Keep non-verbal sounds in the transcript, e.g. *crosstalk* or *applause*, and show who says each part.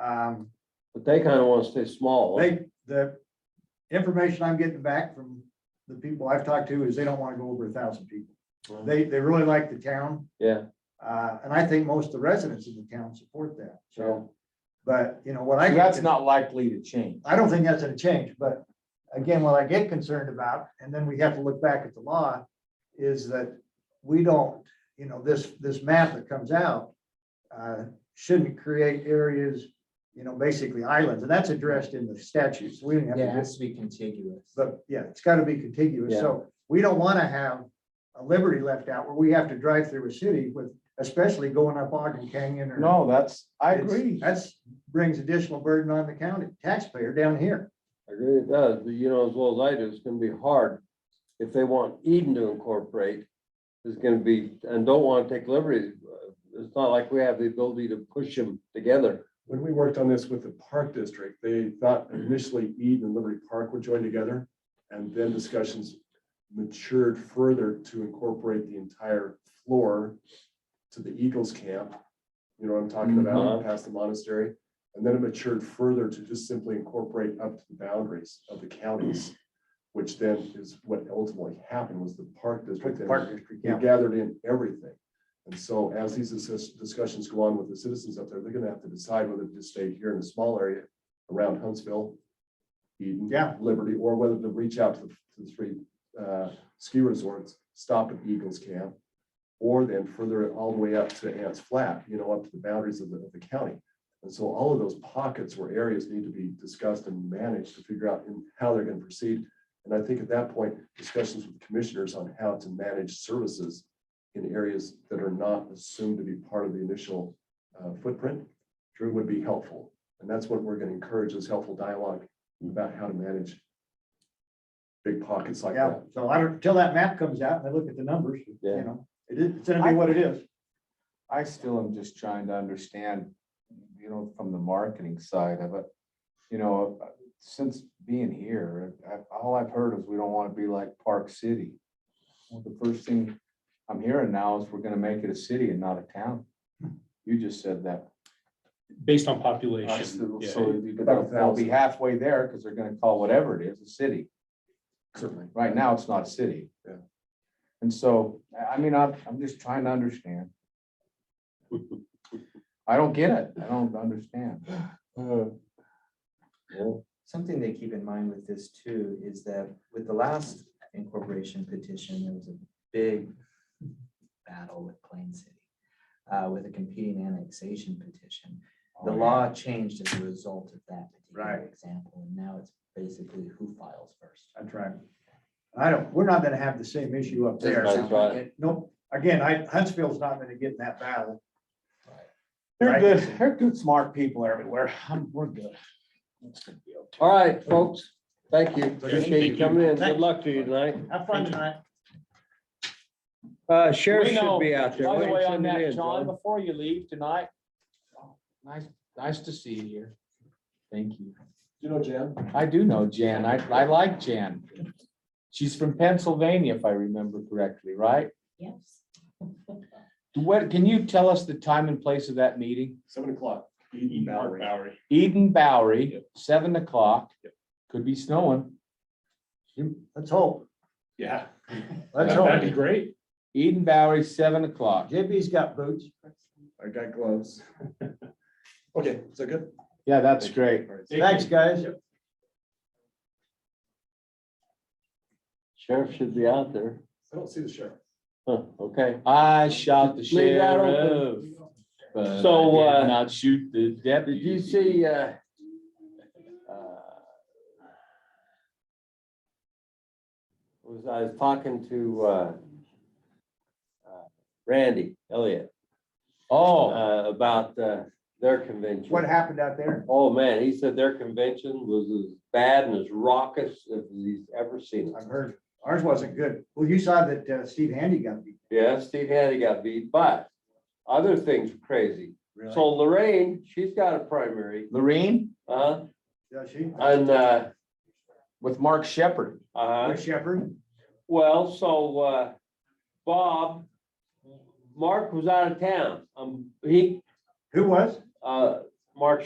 Speaker 1: Um,
Speaker 2: But they kind of want to stay small.
Speaker 1: they, the information I'm getting back from the people I've talked to is they don't want to go over a thousand people. They, they really like the town.
Speaker 2: Yeah,
Speaker 1: Uh, and I think most of the residents in the town support that, so. But, you know, what I.
Speaker 3: So
Speaker 1: get
Speaker 3: That's
Speaker 1: to-
Speaker 3: not likely to change.
Speaker 1: I don't think that's gonna change, but again, what I get concerned about, and then we have to look back at the law, is that we don't, you know, this, this map that comes out uh, shouldn't create areas, you know, basically islands, and that's addressed in the statutes. We didn't have
Speaker 3: Yeah, it
Speaker 1: to,
Speaker 3: has to be contiguous.
Speaker 1: but yeah, it's gotta be contiguous, so we don't wanna have a liberty left out where we have to drive through a city with, especially going up Ogden Canyon or.
Speaker 3: No, that's, I
Speaker 1: It's-
Speaker 3: agree.
Speaker 1: That's, brings additional burden on the county taxpayer down here.
Speaker 2: I agree it does, but you know, as well as I do, it's gonna be hard. If they want Eden to incorporate, it's gonna be, and don't want to take liberties. uh, It's not like we have the ability to push them together.
Speaker 4: When we worked on this with the park district, they thought initially Eden and Liberty Park would join together. And then discussions matured further to incorporate the entire floor to the Eagles camp. You know what I'm talking
Speaker 2: Mhm.
Speaker 4: about, past the monastery. And then it matured further to just simply incorporate up to the boundaries of the counties, which then is what ultimately happened was the park district. and-
Speaker 1: district,
Speaker 4: we gathered in everything. And so as these dis- discussions go on with the citizens up there, they're gonna have to decide whether to stay here in a small area around Huntsville, Eden,
Speaker 1: Yeah.
Speaker 4: Liberty, or whether to reach out to the, to the three, uh, ski resorts, stop at Eagles Camp, or then further all the way up to Ants Flat, you know, up to the boundaries of the, of the county. And so all of those pockets where areas need to be discussed and managed to figure out in- how they're gonna proceed. And I think at that point, discussions with commissioners on how to manage services in areas that are not assumed to be part of the initial uh, footprint Drew would be helpful. And that's what we're going to encourage is helpful dialogue about how to manage big pockets like
Speaker 1: Yeah,
Speaker 4: that.
Speaker 1: so I don't, till that map comes out and I look at the numbers, you
Speaker 2: Yeah.
Speaker 1: know, it is, it's gonna be what it is.
Speaker 3: I still am just trying to understand, you know, from the marketing side of it. You know, uh, since being here, I, all I've heard is we don't want to be like Park City. Well, The first thing I'm hearing now is we're gonna make it a city and not a town. You just said that.
Speaker 5: Based on
Speaker 3: Uh,
Speaker 5: population.
Speaker 3: So
Speaker 5: yeah.
Speaker 3: so you could- they'll be halfway there because they're gonna call whatever it is a city.
Speaker 4: Certainly.
Speaker 3: Right now, it's not a city.
Speaker 4: Yeah.
Speaker 3: And so, I, I mean, I'm, I'm just trying to understand. I don't get it. I don't understand.
Speaker 6: Something they keep in mind with this too is that with the last incorporation petition, there was a big battle with Plain City. uh, with a competing annexation petition.
Speaker 3: Oh,
Speaker 6: The law changed as a result of that particular
Speaker 1: Right.
Speaker 6: example, and now it's basically who files first.
Speaker 1: That's right. I don't, we're not gonna have the same issue up there.
Speaker 2: That's right.
Speaker 1: Nope, again, I, Huntsville's not gonna get in that battle.
Speaker 3: They're good, they're good, smart people everywhere. I'm- We're good.
Speaker 2: All right, folks, thank you.
Speaker 1: Okay,
Speaker 2: Appreciate you
Speaker 5: thank
Speaker 2: coming in. Good luck to you tonight.
Speaker 1: Have fun tonight.
Speaker 2: Uh, sheriff
Speaker 5: We know,
Speaker 2: should be out there.
Speaker 5: By
Speaker 2: Why
Speaker 5: the
Speaker 2: don't you
Speaker 5: way, on
Speaker 2: send it
Speaker 5: that,
Speaker 2: in, John?
Speaker 5: John, before you leave tonight, nice, nice to see you here. Thank you.
Speaker 4: You know, Jan,
Speaker 5: I do know Jan. I, I like Jan. She's from Pennsylvania, if I remember correctly, right?
Speaker 7: Yes.
Speaker 5: What, can you tell us the time and place of that meeting?
Speaker 4: seven o'clock. Eden Bowery.
Speaker 5: Eden Bowery, seven o'clock. Could be snowing.
Speaker 1: Let's hope.
Speaker 4: Yeah.
Speaker 1: Let's hope.
Speaker 4: great.
Speaker 5: Eden Bowery, seven o'clock.
Speaker 1: JB's got boots.
Speaker 4: I got gloves. *laughs* Okay, is that good?
Speaker 5: Yeah, that's great.
Speaker 4: All right.
Speaker 1: Thanks, guys.
Speaker 2: Sheriff should be out there.
Speaker 4: I don't see the sheriff.
Speaker 2: Huh, okay.
Speaker 5: I shot the
Speaker 2: Leave that open.
Speaker 5: sheriff. but I
Speaker 2: So,
Speaker 5: did
Speaker 2: uh,
Speaker 5: Not shoot the
Speaker 2: Did
Speaker 5: deputy.
Speaker 2: you see, uh, uh, was, I was talking to, uh, uh, Randy Elliott,
Speaker 5: Oh,
Speaker 2: uh, about, uh, their convention.
Speaker 1: What happened out there?
Speaker 2: Oh, man, he said their convention was as bad and as raucous as he's ever seen. it.
Speaker 1: I've heard ours wasn't good. Well, you saw that uh, Steve Handy got beat.
Speaker 2: Yeah, Steve Hattie got beat, but other things were crazy. So Lorraine, she's got a primary,
Speaker 5: Lorraine
Speaker 2: uh,
Speaker 1: Does she?
Speaker 2: and, uh,
Speaker 5: with Mark Shepherd.
Speaker 2: uh,
Speaker 1: Rick Shepherd?
Speaker 2: Well, so, uh, Bob, Mark was out of town. Um, he,
Speaker 1: Who was?
Speaker 2: uh, Mark